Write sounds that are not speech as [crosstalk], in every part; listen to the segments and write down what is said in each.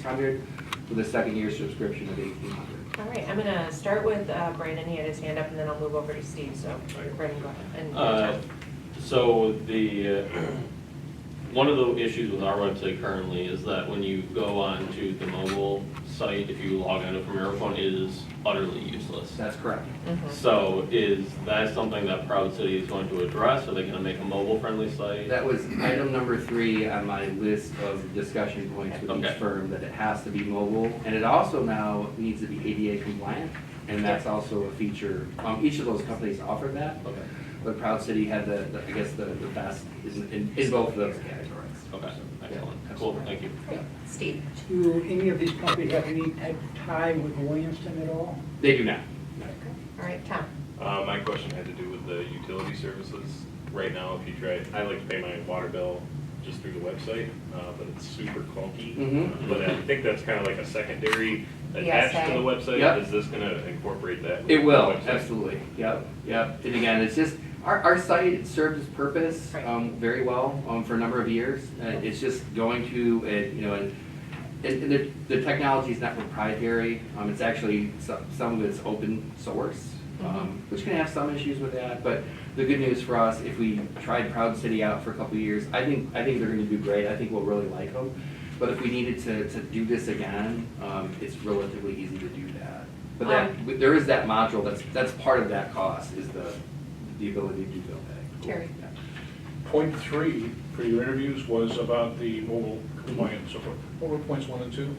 hundred with a second year subscription of eighteen hundred. All right, I'm gonna start with uh, Brandon, he had his hand up, and then I'll move over to Steve, so Brandon, go ahead. and- Uh, So the, uh, [clears throat] one of the issues with our website currently is that when you go on to the mobile site, if you log on from your phone, it is utterly useless. That's correct. Mhm. So is that something that Proud City is going to address? Are they going to make a mobile-friendly site? That was item number three on my list of discussion points with each Okay. firm, that it has to be mobile. And it also now needs to be ADA compliant, and that's also a feature. Um, each of those companies offer that, Okay, but Proud City had the, the- I guess, the, the best in, in- in both of those categories. okay, excellent. Cool, thank you. Great. Steve? Do any of these companies have any type of tie with Williamston at all? They do now. All right, Tom? Uh, my question had to do with the utility services. Right now, if you try, I like to pay my water bill just through the website, uh, but it's super clunky. Mhm. But I think that's kind of like a secondary attached ESA. to the Yep. website. Is this gonna incorporate that? with It the will, website? absolutely, yep, yep. And again, it's just, our, our site it served its purpose Right. um, very well um, for a number of years. Uh, It's just going to, uh, you know, and, and the, the technology is not proprietary. Um, It's actually, some, some of it's open source, Mm-hmm. um, which can have some issues with that. But the good news for us, if we tried Proud City out for a couple of years, I think, I think they're gonna do great. I think we'll really like them. But if we needed to, to do this again, um, it's relatively easy to do that. But that, Um, but There is that module, that's, that's part of that cost, is the, the ability to do bill pay. Terry. Point three for your interviews was about the mobile compliance, so forth. what were points one and two?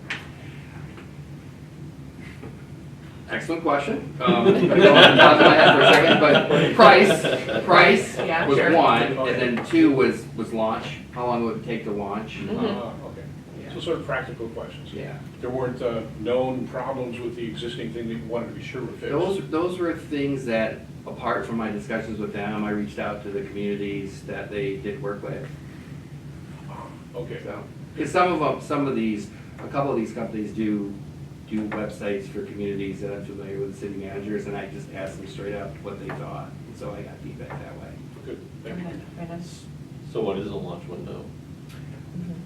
Excellent question. Um, I'm going off the top of my head for a second, but price, price Yeah, was sure. one, and then two was, was launch, how long would it take to launch? Mm-hmm. Um, Ah, Okay, so sort of practical questions. Yeah. There weren't uh, known problems with the existing thing that you wanted to be sure were fixed. Those, those were things that, apart from my discussions with them, I reached out to the communities that they did work with. Okay, So, because um, some of them, some of these, a couple of these companies do, do websites for communities that I'm familiar with, city managers, and I just asked them straight up what they thought, and so I got feedback that way. good, thank you. Brandon? Brandon? So what is a launch window?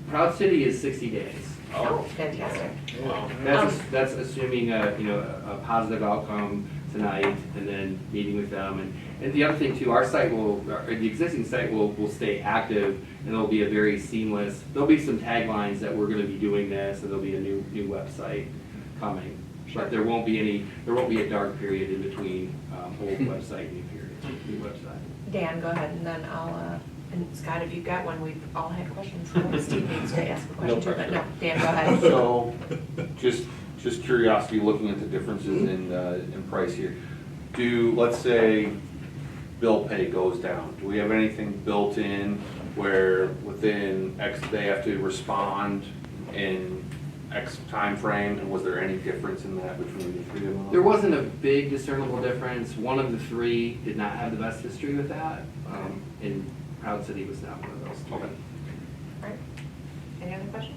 Proud City is sixty days. Oh, fantastic. Wow. That's, Um, that's assuming a, you know, a a positive outcome tonight, and then meeting with them, and, and the other thing too, our site will, or the existing site will, will stay active, and there'll be a very seamless, there'll be some taglines that we're gonna be doing this, and there'll be a new, new website coming. But there won't be any, there won't be a dark period in between, um, old website, new period, new website. Dan, go ahead, and then I'll, uh, and Scott, if you've got one, we've all had questions, so Steve needs to ask a question too, but no, Dan, go ahead. So, just, just curiosity, looking at the differences in, uh, in price here. Do, let's say, bill pay goes down, do we have anything built in where within X, they have to respond in X time frame? And was there any difference in that between the three of them? There wasn't a big discernible difference. One of the three did not have the best history with that, um, and Proud City was not one of those Okay. three. Alright. Any other questions?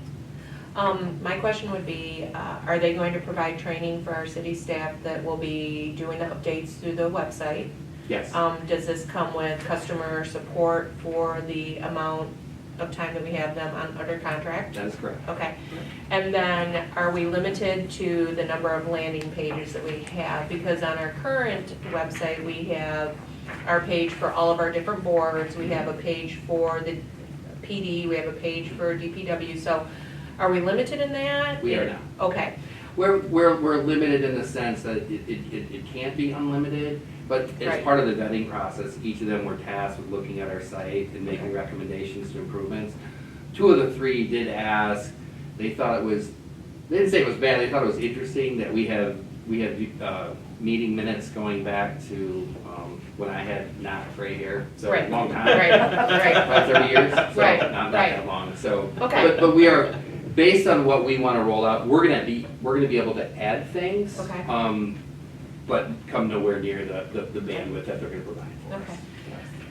Um, my question would be, uh, are they going to provide training for our city staff that will be doing the updates through the website? Yes, Um, does this come with customer support for the amount of time that we have them on, under contract? that is correct. Okay. And then are we limited to the number of landing pages that we have? Because on our current website, we have our page for all of our different boards. We have a page for the PD, we have a page for DPW. So are we limited in that? We are now. Okay, We're, we're, we're limited in the sense that it, it, it it can't be unlimited, but as Right. part of the vetting process, each of them were tasked with looking at our site and making recommendations to improvements. Two of the three did ask, they thought it was, they didn't say it was bad, they thought it was interesting that we have, we have, uh, meeting minutes going back to, um, when I had not gray hair, so a Right. long time. [laughs] right, right. About thirty years, so Right, not, not right. that long, so. Okay. But, but we are, based on what we wanna roll out, we're gonna be, we're gonna be able to add things. Okay. Um, but come nowhere near the, the the bandwidth that they're gonna provide for us. Okay.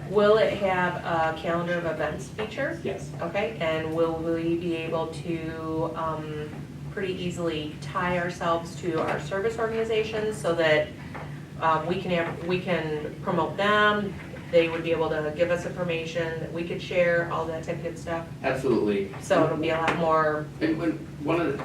Will it have a calendar of events feature? Yes, Okay, and will we be able to um, pretty easily tie ourselves to our service organizations so that um, we can, have- we can promote them? They would be able to give us information that we could share, all that type of good stuff. absolutely. So it'll be a lot more And when, one of the,